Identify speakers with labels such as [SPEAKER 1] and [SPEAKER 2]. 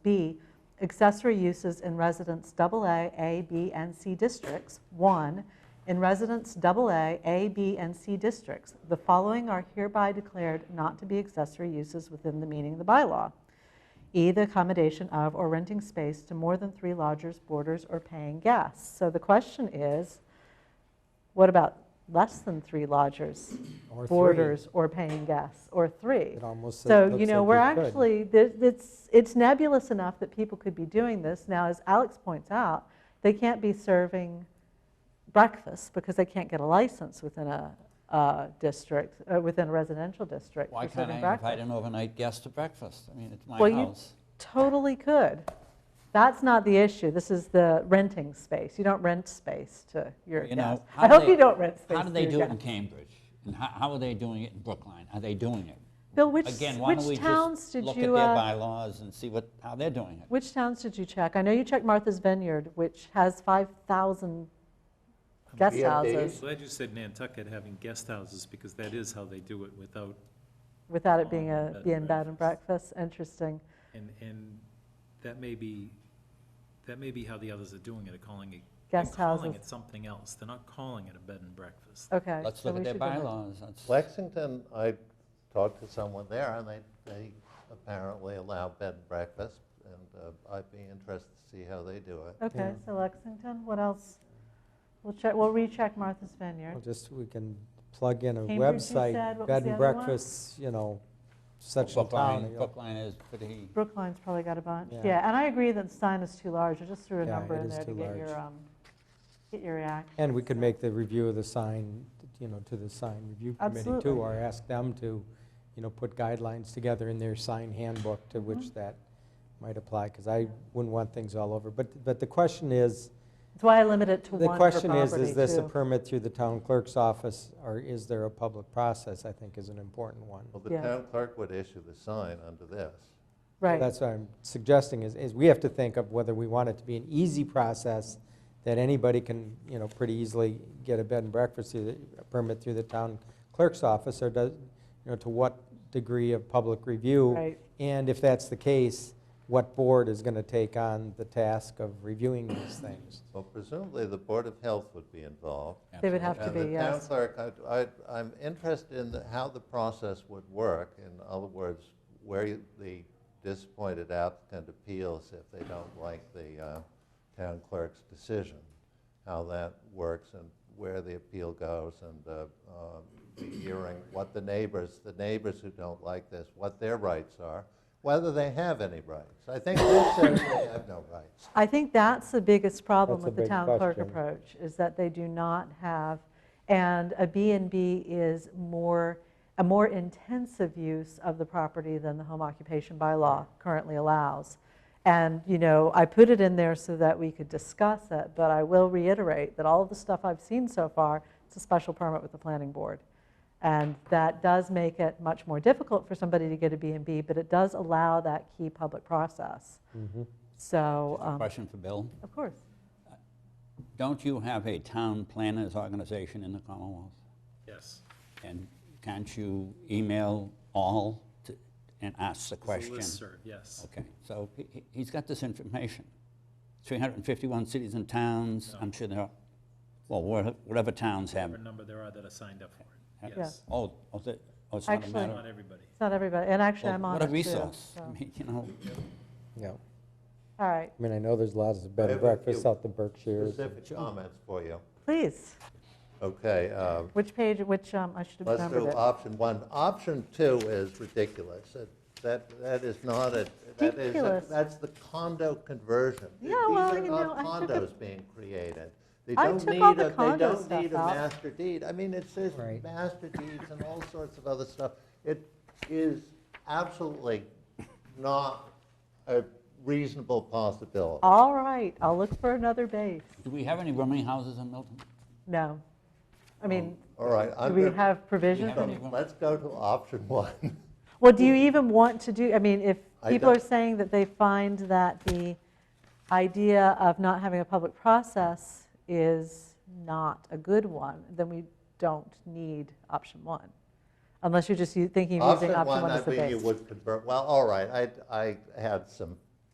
[SPEAKER 1] B, accessory uses in residence AA, A, B, and C districts. One, in residence AA, A, B, and C districts, the following are hereby declared not to be accessory uses within the meaning of the bylaw. E, the accommodation of or renting space to more than three lodgers, boarders, or paying guests. So the question is, what about less than three lodgers,
[SPEAKER 2] Or three.
[SPEAKER 1] boarders, or paying guests, or three?
[SPEAKER 2] It almost
[SPEAKER 1] So,
[SPEAKER 2] looks
[SPEAKER 1] you know,
[SPEAKER 2] like
[SPEAKER 1] we're
[SPEAKER 2] could.
[SPEAKER 1] actually, there- it's, it's nebulous enough that people could be doing this. Now, as Alex points out, they can't be serving breakfast because they can't get a license within a uh, district, uh, within a residential district
[SPEAKER 3] Why
[SPEAKER 1] for
[SPEAKER 3] can't
[SPEAKER 1] serving
[SPEAKER 3] I invite
[SPEAKER 1] breakfast.
[SPEAKER 3] an overnight guest to breakfast? I mean, it's my
[SPEAKER 1] Well, you-
[SPEAKER 3] house.
[SPEAKER 1] Totally could. That's not the issue. This is the renting space. You don't rent space to your
[SPEAKER 3] You know,
[SPEAKER 1] guests.
[SPEAKER 3] how
[SPEAKER 1] I
[SPEAKER 3] do
[SPEAKER 1] hope
[SPEAKER 3] they-
[SPEAKER 1] you don't rent space
[SPEAKER 3] How
[SPEAKER 1] to
[SPEAKER 3] do they
[SPEAKER 1] your
[SPEAKER 3] do it in
[SPEAKER 1] guests.
[SPEAKER 3] Cambridge? And how, how are they doing it in Brookline? Are they doing it?
[SPEAKER 1] Bill, which,
[SPEAKER 3] Again, why don't we
[SPEAKER 1] which towns
[SPEAKER 3] just
[SPEAKER 1] did
[SPEAKER 3] look at
[SPEAKER 1] you,
[SPEAKER 3] their
[SPEAKER 1] uh,
[SPEAKER 3] bylaws and see what, how they're doing it?
[SPEAKER 1] which towns did you check? I know you checked Martha's Vineyard, which has 5,000 guest
[SPEAKER 4] VFAs?
[SPEAKER 1] houses.
[SPEAKER 5] Glad you said Nantucket having guest houses, because that is how they do it without,
[SPEAKER 1] Without it being
[SPEAKER 5] Oh,
[SPEAKER 1] a,
[SPEAKER 5] bed and
[SPEAKER 1] being bed and breakfast, interesting.
[SPEAKER 5] and, and that may be, that may be how the others are doing it, are calling it. they're
[SPEAKER 1] Guest
[SPEAKER 5] Calling
[SPEAKER 1] houses,
[SPEAKER 5] it something else, they're not calling it a bed and breakfast.
[SPEAKER 1] okay.
[SPEAKER 3] Let's
[SPEAKER 1] so
[SPEAKER 3] look
[SPEAKER 1] we
[SPEAKER 3] at their
[SPEAKER 1] should do that.
[SPEAKER 3] bylaws. That's-
[SPEAKER 4] Lexington, I talked to someone there, and they, they apparently allow bed and breakfast, and uh, I'd be interested to see how they do it.
[SPEAKER 1] Okay,
[SPEAKER 2] Yeah.
[SPEAKER 1] so Lexington, what else? We'll check, we'll recheck Martha's Vineyard.
[SPEAKER 2] Well, Just, we can plug in a
[SPEAKER 1] Cambridge, you said,
[SPEAKER 2] website,
[SPEAKER 1] what was
[SPEAKER 2] bed
[SPEAKER 1] the
[SPEAKER 2] and
[SPEAKER 1] other one?
[SPEAKER 2] breakfasts, you know, such and town.
[SPEAKER 3] Brookline,
[SPEAKER 2] you know.
[SPEAKER 3] Brookline is pretty,
[SPEAKER 1] Brookline's probably got a bunch,
[SPEAKER 2] Yeah.
[SPEAKER 1] yeah, and I agree that Stein is too large, I just threw a
[SPEAKER 2] Yeah,
[SPEAKER 1] number
[SPEAKER 2] it
[SPEAKER 1] in
[SPEAKER 2] is
[SPEAKER 1] there to
[SPEAKER 2] too
[SPEAKER 1] get
[SPEAKER 2] large.
[SPEAKER 1] your, um, get your reaction.
[SPEAKER 2] And we could make the review of the sign, you know, to the sign review committee
[SPEAKER 1] Absolutely.
[SPEAKER 2] too, or ask them to, you know, put guidelines together in their sign handbook to
[SPEAKER 1] Mm-hmm.
[SPEAKER 2] which that might apply, because I wouldn't want things all over. But, but the question is,
[SPEAKER 1] That's why I limit it to
[SPEAKER 2] the
[SPEAKER 1] one per property, too.
[SPEAKER 2] question is, is this a permit through the town clerk's office, or is there a public process, I think is an important one.
[SPEAKER 4] Well, the
[SPEAKER 1] Yeah.
[SPEAKER 4] town clerk would issue the sign under this.
[SPEAKER 1] Right,
[SPEAKER 2] That's what I'm suggesting, is, is we have to think of whether we want it to be an easy process that anybody can, you know, pretty easily get a bed and breakfast through the, a permit through the town clerk's office, or does, you know, to what degree of public review?
[SPEAKER 1] right,
[SPEAKER 2] And if that's the case, what board is gonna take on the task of reviewing these things?
[SPEAKER 4] Well, presumably, the Board of Health would be involved.
[SPEAKER 1] they would have to
[SPEAKER 4] And
[SPEAKER 1] be,
[SPEAKER 4] the town
[SPEAKER 1] yes.
[SPEAKER 4] clerk, I- I, I'm interested in the- how the process would work. In other words, where you- the disappointed applicant appeals if they don't like the uh, town clerk's decision, how that works and where the appeal goes and uh, um, the hearing, what the neighbors, the neighbors who don't like this, what their rights are, whether they have any rights. I think this says they have no rights.
[SPEAKER 1] I think that's the biggest problem
[SPEAKER 2] That's a
[SPEAKER 1] with the
[SPEAKER 2] big
[SPEAKER 1] town clerk
[SPEAKER 2] question.
[SPEAKER 1] approach, is that they do not have, and a B and B is more, a more intensive use of the property than the home occupation bylaw currently allows. And, you know, I put it in there so that we could discuss it, but I will reiterate that all of the stuff I've seen so far, it's a special permit with the planning board. And that does make it much more difficult for somebody to get a B and B, but it does allow that key public process.
[SPEAKER 2] Mm-hmm.
[SPEAKER 1] So.
[SPEAKER 3] Just a
[SPEAKER 1] um,
[SPEAKER 3] question for Bill.
[SPEAKER 1] of course.
[SPEAKER 3] Don't you have a town planners organization in the Commonwealth?
[SPEAKER 5] Yes.
[SPEAKER 3] And can't you email all to- and ask the
[SPEAKER 5] It's a
[SPEAKER 3] question?
[SPEAKER 5] listserv, yes.
[SPEAKER 3] Okay, so he- he- he's got this information. 351 cities and towns, I'm sure there are, well, wha- whatever towns
[SPEAKER 5] Whatever
[SPEAKER 3] have.
[SPEAKER 5] number there are that are signed up for it,
[SPEAKER 1] Yeah.
[SPEAKER 5] yes.
[SPEAKER 3] Oh, oh, the- oh, it's not a
[SPEAKER 1] Actually-
[SPEAKER 3] matter.
[SPEAKER 5] Not everybody.
[SPEAKER 1] It's not everybody, and actually,
[SPEAKER 3] Well,
[SPEAKER 1] I'm on it
[SPEAKER 3] What a
[SPEAKER 1] too,
[SPEAKER 3] resource.
[SPEAKER 1] so.
[SPEAKER 3] I mean, you know,
[SPEAKER 2] Yeah,
[SPEAKER 1] All right,
[SPEAKER 2] I mean, I know there's lots of bed
[SPEAKER 4] I
[SPEAKER 2] and
[SPEAKER 4] have a few
[SPEAKER 2] breakfasts out the Berkshires.
[SPEAKER 4] Specific comments for you.
[SPEAKER 1] please,
[SPEAKER 4] Okay, uh,
[SPEAKER 1] which page, which, um, I should have
[SPEAKER 4] Let's
[SPEAKER 1] remembered
[SPEAKER 4] do
[SPEAKER 1] it.
[SPEAKER 4] option one. Option two is ridiculous. It- That, that is not a, that is, a-
[SPEAKER 1] Ridiculous.
[SPEAKER 4] that's the condo conversion.
[SPEAKER 1] Yeah, well, you
[SPEAKER 4] These are
[SPEAKER 1] know,
[SPEAKER 4] not
[SPEAKER 1] I took a-
[SPEAKER 4] condos being created. They
[SPEAKER 1] I
[SPEAKER 4] don't
[SPEAKER 1] took
[SPEAKER 4] need
[SPEAKER 1] all
[SPEAKER 4] a-
[SPEAKER 1] the condo
[SPEAKER 4] They
[SPEAKER 1] stuff
[SPEAKER 4] don't need a
[SPEAKER 1] out.
[SPEAKER 4] master deed. I mean, it says
[SPEAKER 2] Right.
[SPEAKER 4] master deeds and all sorts of other stuff. It is absolutely not a reasonable possibility.
[SPEAKER 1] All right, I'll look for another base.
[SPEAKER 3] do we have any rooming houses in Milton?
[SPEAKER 1] No, I mean,
[SPEAKER 4] All right,
[SPEAKER 1] do
[SPEAKER 4] Um, I'm
[SPEAKER 1] we
[SPEAKER 4] gonna-
[SPEAKER 1] have provisions?
[SPEAKER 3] have
[SPEAKER 1] in-
[SPEAKER 3] any-
[SPEAKER 4] let's go to option one.
[SPEAKER 1] Well, do you even want to do, I mean, if
[SPEAKER 4] I
[SPEAKER 1] people are
[SPEAKER 4] don't-
[SPEAKER 1] saying that they find that the idea of not having a public process is not a good one, then we don't need option one, unless you're just u- thinking of using option one as the
[SPEAKER 4] I think you
[SPEAKER 1] base.
[SPEAKER 4] would convert, well, all right, I, I had some